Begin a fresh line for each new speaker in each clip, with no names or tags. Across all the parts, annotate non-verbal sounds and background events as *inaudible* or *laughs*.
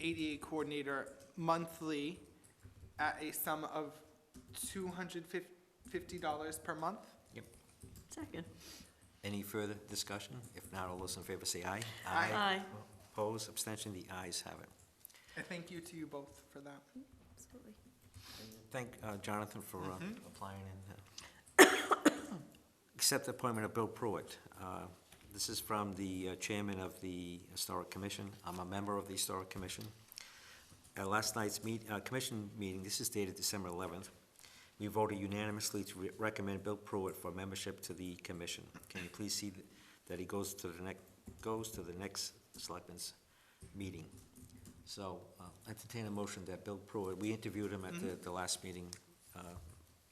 ADA coordinator monthly at a sum of two hundred fifty dollars per month.
Second.
Any further discussion? If not, all those in favor say aye.
Aye.
Aye.
Oppose, abstention, the ayes have it.
And thank you to you both for that.
Absolutely.
Thank uh, Jonathan for uh, applying and, uh, accept the appointment of Bill Pruitt. Uh, This is from the uh, chairman of the Historic Commission. I'm a member of the Historic Commission. At last night's meet, uh, commission meeting, this is dated December eleventh, we voted unanimously to re- recommend Bill Pruitt for membership to the commission. Can you please see th- that he goes to the next, goes to the next selectmen's meeting? So uh, entertain a motion that Bill Pruitt, we interviewed him at the, the last meeting, uh,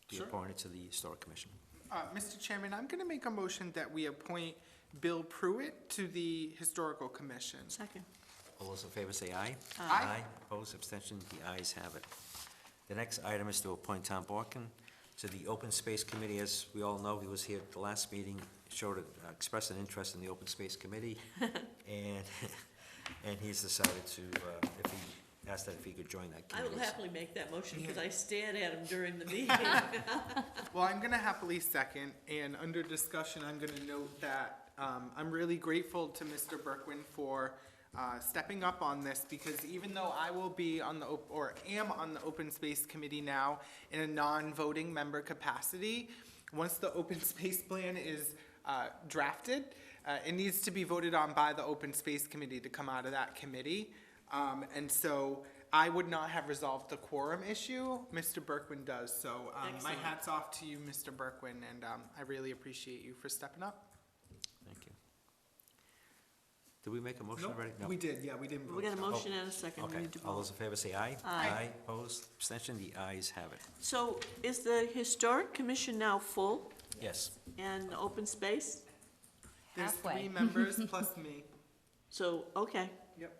be
Sure.
appointed to the Historic Commission.
Uh, Mr. Chairman, I'm gonna make a motion that we appoint Bill Pruitt to the Historical Commission.
Second.
All those in favor say aye.
Aye.
Opposed, abstention, the ayes have it. The next item is to appoint Tom Borkin to the Open Space Committee. As we all know, he was here at the last meeting, showed, a- uh, expressed an interest in the Open Space Committee. And, *laughs* and he's decided to, uh, if he, asked that if he could join that
I
committee.
will happily make that motion, because
Yeah.
I stared at him during
*laughs*
the meeting.
Well, I'm gonna happily second, and under discussion, I'm gonna note that, um, I'm really grateful to Mr. Berkwin for, uh, stepping up on this, because even though I will be on the, op- or am on the Open Space Committee now in a non-voting member capacity, once the open *laughs* space plan is, uh, drafted, uh, it needs to be voted on by the Open Space Committee to come out of that committee. Um, and so I would not have resolved the quorum issue. Mr. Berkwin does, so, um, my
Excellent.
hat's off to you, Mr. Berkwin, and, um, I really appreciate you for stepping up.
Thank you. Did we make a motion
Nope,
already?
We did, yeah, we didn't vote.
We got a motion and a second. We
Okay,
need to
all
vote.
those in favor say aye.
Aye.
opposed, abstention, the ayes have it.
So is the historic commission now full
Yes.
and open space?
There's three
Halfway.
members plus me.
So, okay,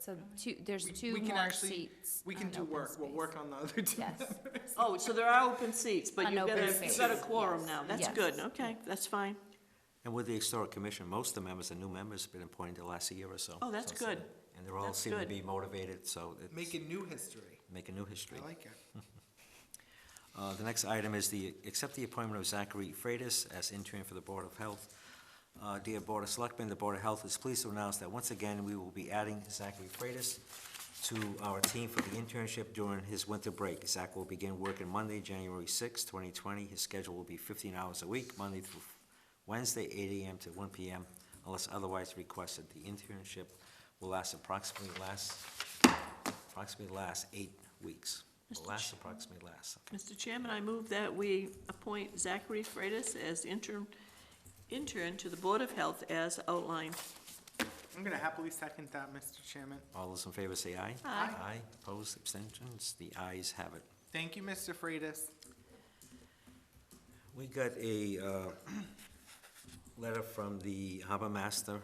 So two, *laughs* there's two
We can
more
actually,
seats.
we can
on
do
open
work, we'll
space.
work on the other two.
Yes,
oh, so there are open seats, but
On
you've got
open
a, you've got a
space,
quorum
yes.
now, that's
Yes.
good, okay, that's fine.
And with the Historic Commission, most of the members are new members, been appointed the last year or so.
Oh, that's
So it's, uh,
good.
And they're all
That's
seem to
good.
be motivated, so it's,
Making new history,
make a new history.
I like it.
Uh, The next item is the, accept the appointment of Zachary Freitas as interim for the Board of Health. Uh, Dear Board of Selectmen, the Board of Health is pleased to announce that once again, we will be adding Zachary Freitas to our team for the internship during his winter break. Zach will begin working Monday, January sixth, 2020. His schedule will be 15 hours a week, Monday through Wednesday, 8 AM to 1 PM, unless otherwise requested. The internship will last approximately last, approximately last eight weeks. Will
Mr.
Last
Chair.
approximately last, okay.
Mr. Chairman, I move that we appoint Zachary Freitas as interim, intern to the Board of Health as outlined.
I'm gonna happily second that, Mr. Chairman.
All those in favor say aye.
Aye.
Aye, opposed, abstentions, the ayes have it.
Thank you, Mr. Freitas.
We got a uh, letter from the harbor master,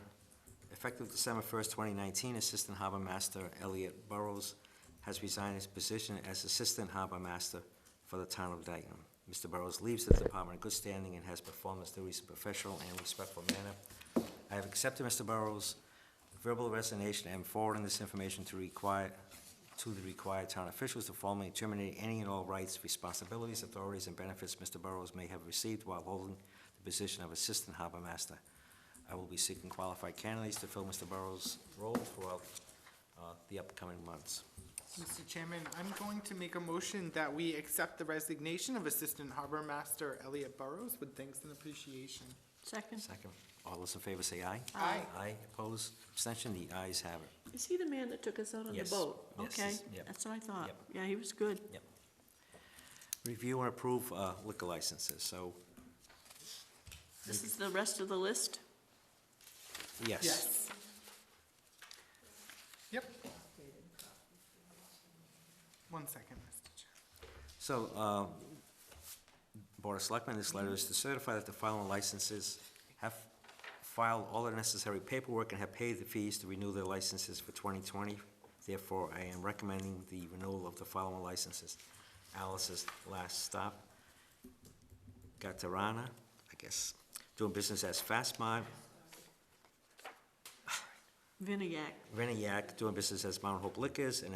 effective December first, twenty nineteen, Assistant Harbor Master Elliot Burrows has resigned his position as Assistant Harbor Master for the town of Dayton. Mr. Burrows leaves the department in good standing and has performed his duties in a professional and respectful manner. I have accepted Mr. Burrows' verbal resignation and forwarding this information to require, to the required town officials to formally terminate any and all rights, responsibilities, authorities, and benefits Mr. Burrows may have received while holding the position of Assistant Harbor Master. I will be seeking qualified candidates to fill Mr. Burrows' role throughout uh, the upcoming months.
Mr. Chairman, I'm going to make a motion that we accept the resignation of Assistant Harbor Master Elliot Burrows with thanks and appreciation.
Second,
Second, all those in favor say aye.
Aye.
Aye, opposed, abstention, the ayes have it.
is he the man that took us out on the
Yes.
boat?
Yes,
Okay,
he's- yep.
that's what I thought,
Yep.
yeah, he was good.
Review and approve uh, liquor licenses, so,
This is the rest of the list?
yes.
Yep. One second, Mr. Chairman.
So, um, Board of Selectmen, this letter is to certify that the following licenses have filed all the necessary paperwork and have paid the fees to renew their licenses for 2020. Therefore, I am recommending the renewal of the following licenses. Alice's Last Stop, Gatarana, I guess, doing business as Fast Mart,
Vinayak.
Reniac, doing business as Mount Hope Liquors, and